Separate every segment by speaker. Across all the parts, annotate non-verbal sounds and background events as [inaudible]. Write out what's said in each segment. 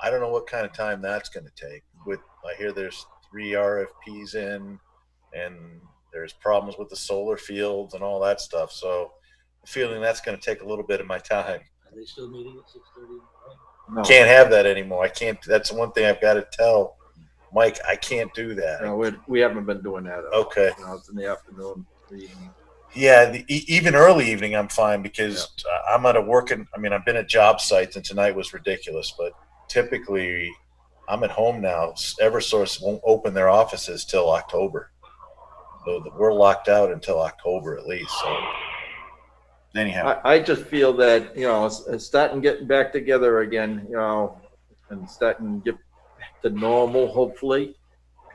Speaker 1: I don't know what kind of time that's going to take. With I hear there's three RFPs in, and there's problems with the solar fields and all that stuff. So, I'm feeling that's going to take a little bit of my time.
Speaker 2: Are they still meeting at six thirty?
Speaker 3: No,
Speaker 1: Can't have that anymore. I can't. That's one thing I've got to tell Mike. I can't do that.
Speaker 3: no, we, we haven't been doing that. uh,
Speaker 1: Okay.
Speaker 3: You know, it's in the afternoon. reading.
Speaker 1: Yeah, the, e- even early evening, I'm fine because uh I'm at a working. I mean, I've been at job sites, and tonight was ridiculous. But typically, I'm at home now. S- EverSource won't open their offices till October, so th- we're locked out until October at least. So, anyhow,
Speaker 3: I, I just feel that, you know, it's, it's starting getting back together again, you know, and starting to get back to normal, hopefully,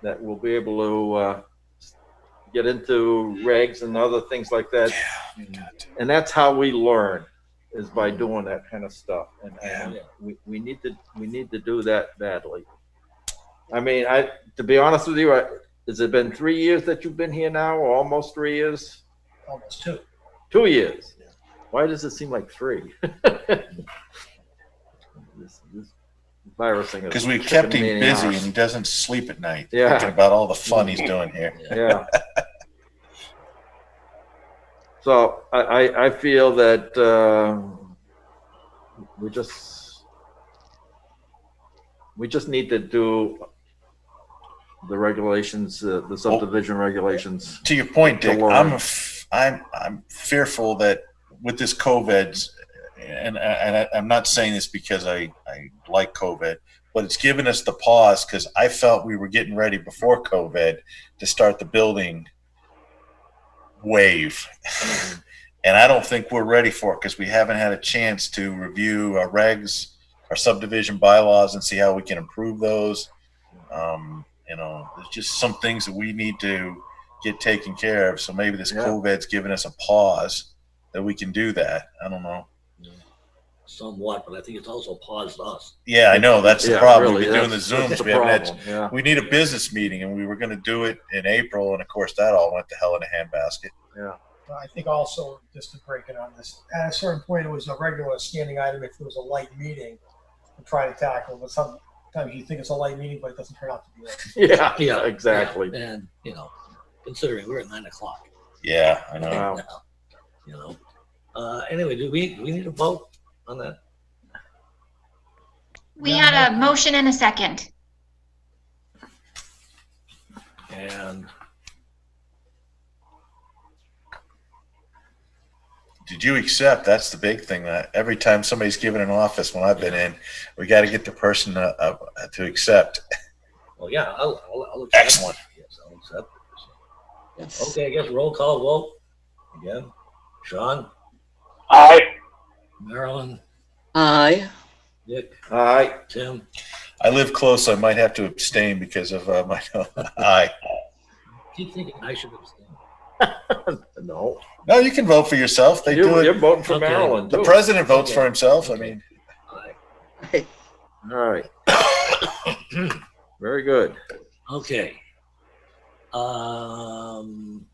Speaker 3: that we'll be able to uh, get into regs and other things like that. And that's how we learn is by doing that kind of stuff. And, and we, we need to we need to do that badly. I mean, I to be honest with you, I, has it been three years that you've been here now, or almost three years?
Speaker 2: Almost two.
Speaker 3: Two years.
Speaker 2: Yeah.
Speaker 3: Why does it seem like three? [laughs] this, this virusing
Speaker 1: because
Speaker 3: is
Speaker 1: we've kept
Speaker 3: kicking
Speaker 1: him
Speaker 3: me in
Speaker 1: busy
Speaker 3: the
Speaker 1: and
Speaker 3: arse.
Speaker 1: he doesn't sleep at night,
Speaker 3: Yeah.
Speaker 1: thinking about all the fun he's doing here.
Speaker 3: yeah. So I, I, I feel that uh, we just we just need to do the regulations, uh, the subdivision regulations.
Speaker 1: to your point,
Speaker 3: The
Speaker 1: Dick,
Speaker 3: Lord.
Speaker 1: I'm f- I'm I'm fearful that with this COVID, and and I, I'm not saying this because I I like COVID, but it's given us the pause because I felt we were getting ready before COVID to start the building wave. [laughs] Oh. And I don't think we're ready for it because we haven't had a chance to review our regs, our subdivision bylaws, and see how we can improve those. Um, you know, there's just some things that we need to get taken care of. So maybe this
Speaker 3: Yeah.
Speaker 1: COVID's given us a pause that we can do that. I don't know.
Speaker 2: Somewhat, but I think it's also paused us.
Speaker 1: Yeah, I know that's the
Speaker 3: Yeah,
Speaker 1: problem.
Speaker 3: really,
Speaker 1: We're doing the
Speaker 3: that's-
Speaker 1: zooms.
Speaker 3: that's the
Speaker 1: we, haven't had,
Speaker 3: problem, yeah. [laughs]
Speaker 1: we need a business meeting, and we were going to do it in April, and of course that all went to hell in a handbasket.
Speaker 4: Well, I think also, just to break it on this, at a certain point, it was a regular standing item if there was a light meeting to try to tackle, but sometimes you think it's a light meeting, but it doesn't turn out to be. it.
Speaker 3: Yeah, yeah, exactly.
Speaker 2: And, you know, considering we're at nine o'clock.
Speaker 1: Yeah, I know.
Speaker 3: Yeah. Wow.
Speaker 2: now, [laughs] You know, uh, anyway, do we, do we need a vote on that?
Speaker 5: We had a motion and a second.
Speaker 2: And
Speaker 1: Did you accept? That's the big thing. That every time somebody's given an office, when I've been in, we got to get the person uh, uh, to accept.
Speaker 2: Well, yeah, I'll, I'll, I'll accept.
Speaker 1: Excellent.
Speaker 2: Yes, I'll accept. Yes. Okay, I guess roll call vote again. Sean,
Speaker 6: Aye.
Speaker 2: Marilyn,
Speaker 7: Aye.
Speaker 2: Dick,
Speaker 3: All right.
Speaker 2: Tim,
Speaker 1: I live close. So I might have to abstain because of uh, my [laughs] eye.
Speaker 2: keep thinking I should abstain.
Speaker 3: No.
Speaker 1: No, you can vote for yourself. They
Speaker 3: you,
Speaker 1: do it.
Speaker 3: are voting for
Speaker 2: Okay.
Speaker 3: Maryland.
Speaker 1: The
Speaker 3: too.
Speaker 1: president votes
Speaker 2: Okay.
Speaker 1: for himself. I mean,
Speaker 2: Aye.
Speaker 3: All right. Very good.
Speaker 2: Okay. Um,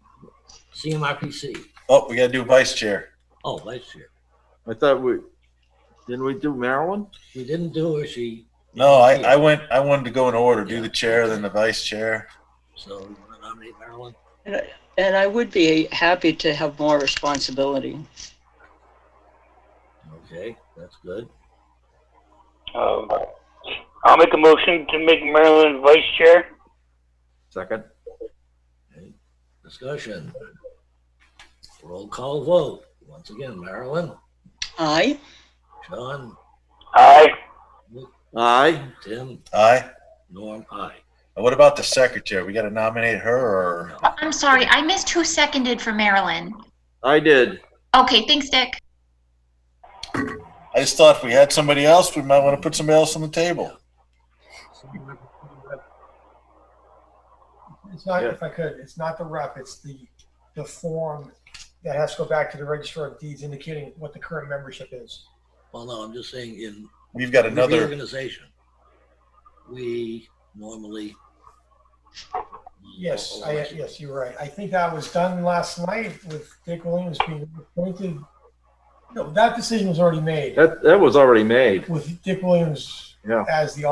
Speaker 2: CMRPC.
Speaker 1: oh, we got to do vice chair.
Speaker 2: Oh, vice chair.
Speaker 3: I thought we didn't we do Maryland?
Speaker 2: We didn't do her, she.
Speaker 1: No, I, I went. I wanted to go in order. Do
Speaker 2: Yeah.
Speaker 1: the chair, then the vice chair.
Speaker 2: So you want to nominate Marilyn?
Speaker 7: And I- [laughs] And I would be happy to have more responsibility.
Speaker 2: Okay, that's good.
Speaker 6: Um, I'll make a motion to make Marilyn vice chair.
Speaker 3: Second.
Speaker 2: Okay. Discussion. Roll call vote. Once again, Marilyn,
Speaker 7: Aye.
Speaker 2: Sean,
Speaker 6: Aye.
Speaker 3: Aye.
Speaker 2: Tim,
Speaker 1: Aye.
Speaker 2: Norm, I.
Speaker 1: And What about the secretary? We got to nominate her, or
Speaker 2: No.
Speaker 5: I'm sorry, I missed who seconded for Marilyn.
Speaker 3: I did.
Speaker 5: Okay, thanks, Dick.
Speaker 1: I just thought if we had somebody else, we might want to put somebody else on the table.
Speaker 4: It's not,
Speaker 3: Yeah.
Speaker 4: if I could, it's not the rep, it's the, the form that has to go back to the register of deeds indicating what the current membership is.
Speaker 2: Well, no, I'm just saying in
Speaker 1: We've got another.
Speaker 2: reorganization, we normally.
Speaker 4: Yes, Oh, I, yes, you're right. I think that was done last night with Dick Williams being appointed. No, that decision was already made
Speaker 3: That that was already made.
Speaker 4: with Dick Williams
Speaker 3: Yeah.
Speaker 4: as the